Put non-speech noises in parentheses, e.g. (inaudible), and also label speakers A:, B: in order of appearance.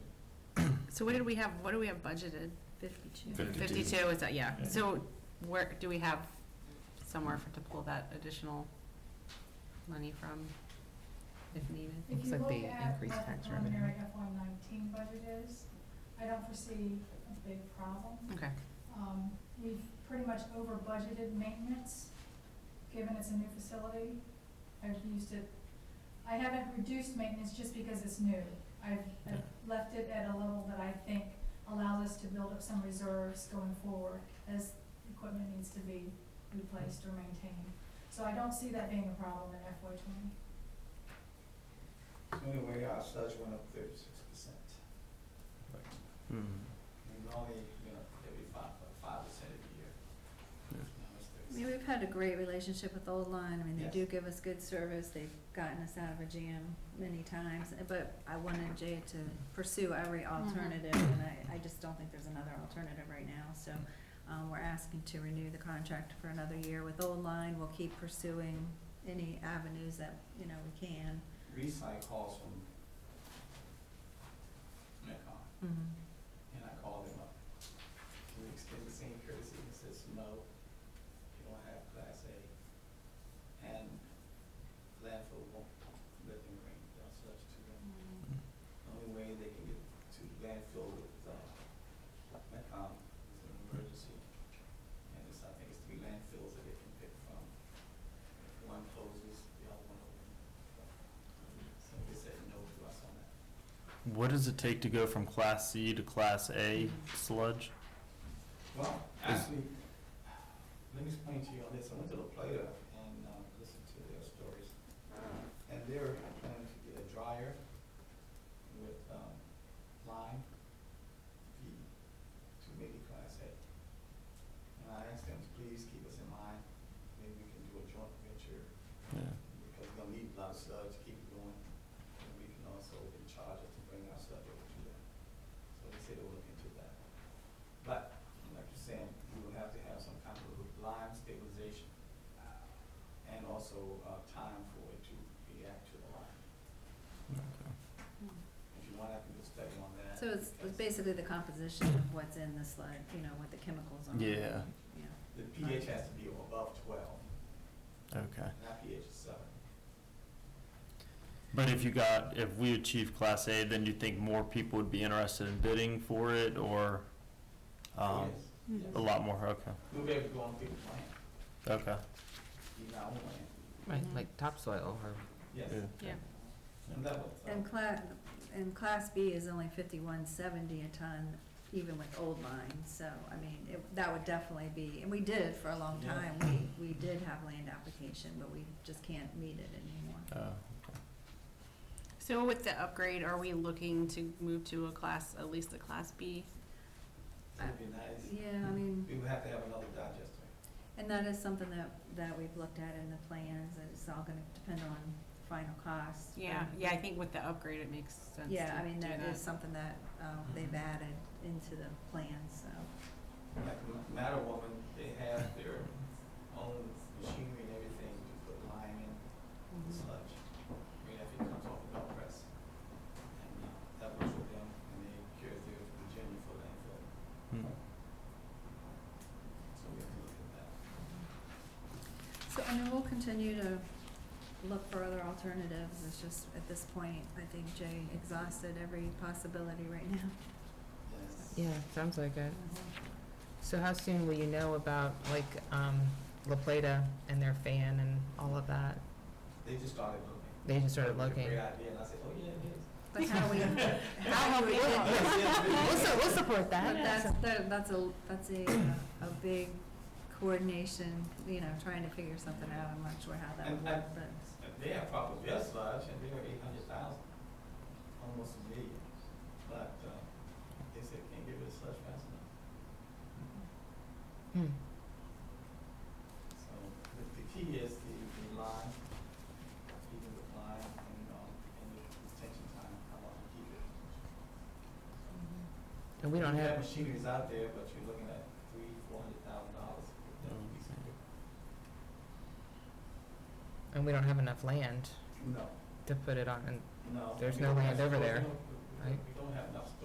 A: So what did we have, what do we have budgeted?
B: 52.
C: 52.
A: Fifty-two, is that, yeah.
C: Yeah.
A: So where, do we have somewhere for, to pull that additional money from if needed?
D: If
E: Looks
D: you
E: like
D: look
E: they
D: at uh,
E: increased
D: what the
E: tax revenue.
D: preliminary FY nineteen budget is, I don't foresee a big problem.
A: Okay,
D: Um, We've pretty much over budgeted maintenance, given it's a new facility. I've used it, I haven't reduced maintenance just because it's new. I've I've
C: Yeah.
D: left it at a level that I think allows us to build up some reserves going forward as equipment needs to be replaced or maintained. So I don't see that being a problem in FY twenty.
F: So anyway, our studs went up thirty-six percent. We normally, you know, every five, five percent every year.
C: Yeah.
F: Now it's
B: I mean,
F: 36.
B: we've had a great relationship with Old Line. I mean, they do
F: Yes.
B: give us good service. They've gotten us out of a jam many times. But I wanted Jay to pursue every alternative, and I, I just don't think there's another alternative right now. So um, we're asking to renew the contract for another year with Old Line. We'll keep pursuing any avenues that, you know, we can.
F: Recently, I called from Metcon, and I called him up. Can we extend the same courtesy? He says, no, you don't have class A. And landfill won't let them bring down such to them. The Only way they can get to the landfill with, uh, Metcon is an emergency. And it's, I think it's three landfills that they can pick from. One closes, the other one opens. So they said no to us on that.
C: What does it take to go from Class C to Class A
B: Mm-hmm.
C: sludge?
F: Well, actually, let me explain to you on this. I went to La Plata and uh, listened to their stories. And they're planning to get a dryer with um, lime feed to make it Class A. And I asked them to please keep us in mind. Maybe we can do a joint venture
C: Yeah.
F: because we're gonna need a lot of stuff to keep it going. And we can also be charged to bring our stuff over to them. So they said they will look into that. But, like you're saying, we will have to have some kind of lime stabilization uh, and also uh, time for it to react to the lime. If you want, I can do a study on that.
B: So it's it's basically the composition of what's in the sludge, you know, what the chemicals are.
C: Yeah.
B: Yeah.
F: The pH has to be above 12,
C: Okay.
F: and our pH is 7.
C: But if you got, if we achieve Class A, then you think more people would be interested in bidding for it or, um,
F: Yes,
E: Hmm.
C: a
E: Oh,
F: yes.
C: lot more? Okay.
F: We'll be able to go on big land,
C: Okay.
F: even our own land.
E: Right, like topsoil or
C: Yeah.
F: Yes.
A: yeah.
F: And that was,
B: And
F: uh,
B: class, and class B is only fifty-one seventy a ton, even with old line, so, I mean, it, that would definitely be, and we did it for a long
F: Yeah.
B: time. We, we did have land application, but we just can't meet it anymore.
C: Uh,
A: So with the upgrade, are we looking to move to a class, at least a class B?
F: it'd be nice.
B: Yeah, I
F: We
B: mean,
F: would have to have another digester.
B: and that is something that, that we've looked at in the plans, and it's all gonna depend on final costs.
A: Um, Yeah, yeah, I think with the upgrade, it makes sense to
B: Yeah, I mean,
A: do
B: that is something that, um, they've added into the plan, so.
F: Like Matter Woman, they have their own machinery and everything to put lime in
A: Mm-hmm.
F: and sludge. I mean, if it comes off the belt press. And uh, that works with them, and they cure their Virginia for
C: hmm.
F: landfill. So we have to look at that.
B: So, I mean, we'll continue to look for other alternatives, it's just, at this point, I think Jay exhausted every possibility right now. (laughs)
F: Yes.
E: Yeah, sounds like it. So how soon will you know about, like, um, La Plata and their fan and all of that?
F: They just started looking.
E: They just started
F: It was a Great
E: looking.
F: idea, and I said, oh, yeah, it is.
B: But how
F: (laughs)
B: we, how we did
F: Yes,
B: that,
F: yes, it
E: We'll,
F: is.
E: su- we'll support
B: but that's,
E: that.
B: that- that's a, that's a, a big coordination, you know, trying to figure something out, I'm not sure how that would work, but,
F: And They have problems, their sludge, and they're eight hundred thousand, almost a million. But uh, they said, can't get rid of sludge fast enough.
E: Hmm.
F: So the the key is the the line, keeping the line and, um, and the detention time, how long you keep it.
E: Mm-hmm. And we don't
F: You
E: have,
F: machineries out there, but you're looking at three, four hundred thousand dollars. for that piece of equipment.
E: and we don't have enough land
F: No,
E: to put it on, and
F: no.
E: There's
F: We
E: no
F: don't
E: land
F: have-
E: over
F: we
E: there,
F: don't- we- we-
E: right?
F: We don't have enough